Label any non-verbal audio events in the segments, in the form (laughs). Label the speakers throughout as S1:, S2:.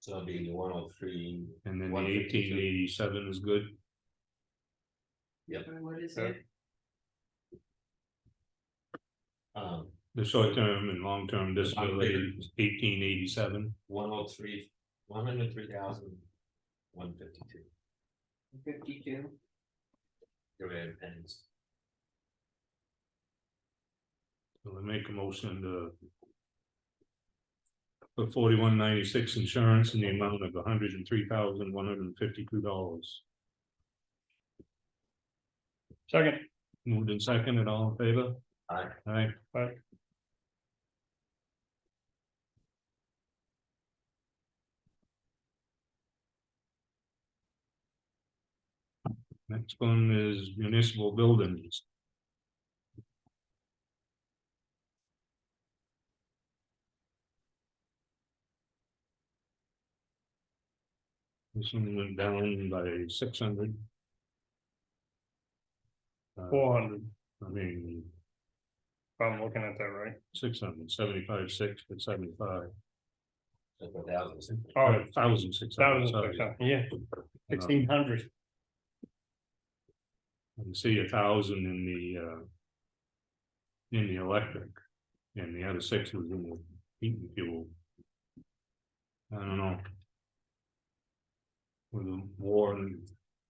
S1: So it'll be one oh three,
S2: and then the
S1: 152.
S2: eighteen eighty-seven is good.
S3: And what is
S1: Okay.
S3: it?
S1: um,
S2: The short-term and long-term disability is eighteen eighty-seven,
S1: one oh three, one hundred three thousand, one fifty-two,
S3: Fifty-two,
S1: your rate of pennies.
S2: so I make a motion to. For forty-one ninety-six insurance in the amount of hundred and three thousand one hundred and fifty-two dollars.
S4: Second,
S2: Moved in second and all in favor?
S1: Aye.
S2: Aye.
S4: Aye.
S2: Next one is municipal buildings. This one went down by six hundred. Uh,
S4: four hundred,
S2: I mean,
S4: if I'm looking at that right.
S2: six hundred seventy-five, six, but seventy-five. uh,
S1: So for thousands.
S4: Oh,
S2: Thousand six hundred,
S4: thousand
S2: sorry.
S4: six hundred, yeah,
S2: Uh,
S4: sixteen hundred,
S2: I see a thousand in the, uh. In the electric, and the other six was in the heat and fuel. I don't know. With the war and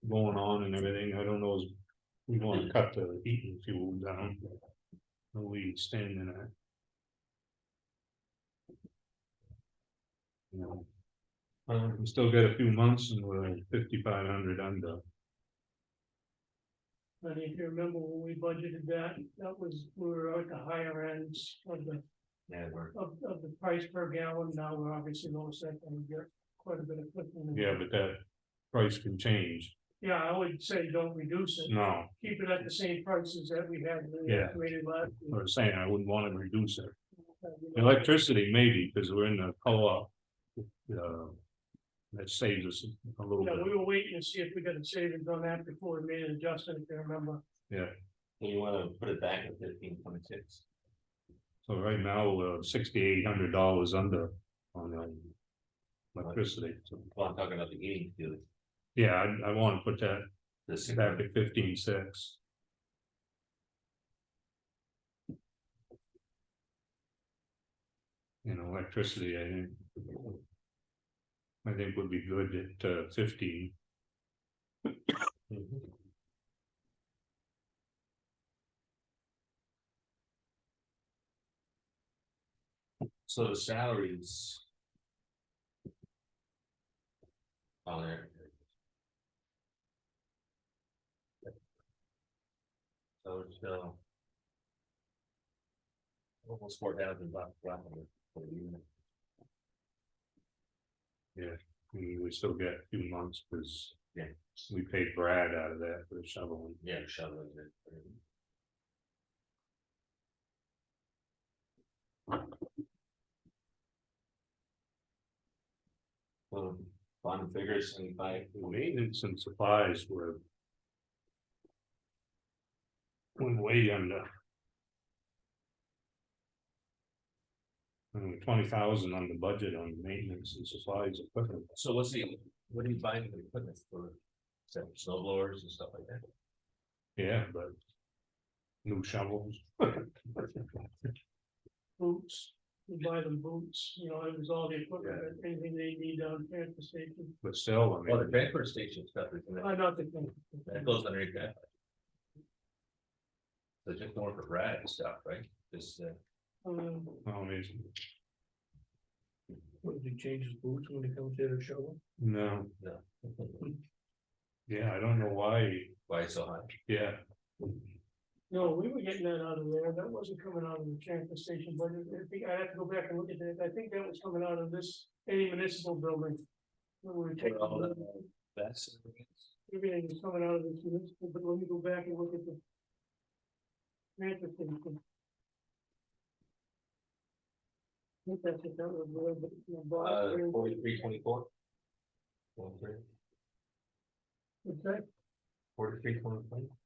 S2: going on and everything, I don't know, if we wanna cut the heat and fuel down. Are we standing at? You know. Uh, we still got a few months and we're fifty-five hundred under.
S5: I mean, if you remember when we budgeted that, that was, we were at the higher ends of the,
S1: Yeah, we're,
S5: of, of the price per gallon, now we're obviously lower set, and we get quite a bit of. cushion.
S2: Yeah, but that price can change.
S5: Yeah, I would say don't reduce it,
S2: No,
S5: keep it at the same prices that we had. when we
S2: Mm. Yeah.
S5: created last year.
S2: I was saying I wouldn't want to reduce it.
S5: Uh, you know,
S2: Electricity maybe, because we're in the co-op. Uh, that saves us a little
S5: Yeah, we
S2: bit.
S5: were waiting to see if we got a savings on that before we made an adjustment, if you remember.
S1: you wanna put it back at fifteen point six,
S2: So right now, we're sixty-eight hundred dollars under on the electricity. So,
S1: well, I'm talking about the heating fuel,
S2: Yeah, I, I want to put that
S1: the six
S2: back
S1: hundred,
S2: at fifteen-six. And electricity, I think. I think would be good at uh, fifteen.
S1: Mm-hmm. so the salaries. On there. So it's still. Almost four thousand bucks. roughly, for the unit.
S2: We we still get a few months, because.
S1: Yeah.
S2: We paid Brad out of that for the shoveling.
S1: Yeah, shoveling it. Well, bottom figures, seventy-five,
S2: Maintenance and supplies were. Went way under. twenty thousand on the budget on maintenance and supplies equipment.
S1: so what's the, what are you buying for the equipment for? Some snow blowers and stuff like that?
S2: Yeah, but. New shovels. (laughs)
S5: Boots, we buy them boots, you know, it was all the equipment, anything they need down here at the station,
S2: But still, I
S1: Well, the
S2: mean,
S1: transfer station stuff is, in that-
S5: I not the.
S1: that goes underneath that. So just more for Brad and stuff, right? This, uh, (laughs)
S5: Um,
S2: I mean,
S5: What, did he change his boots when he comes here to shovel?
S2: no, yeah, I don't know why,
S1: why it's so high?
S2: yeah,
S5: No, we were getting that out of there, that wasn't coming out of the transfer station, but I think, I have to go back and look at that, I think that was coming out of this, any municipal building. When we were taking,
S1: Well, uh, that- That's.
S5: everything was coming out of this municipal, but let me go back and look at the. Transfer station. I think that's what that was, where the- the
S1: Uh,
S5: box-
S1: forty-three, twenty-four? Forty-three,
S5: What's that?
S1: forty-three, twenty-four?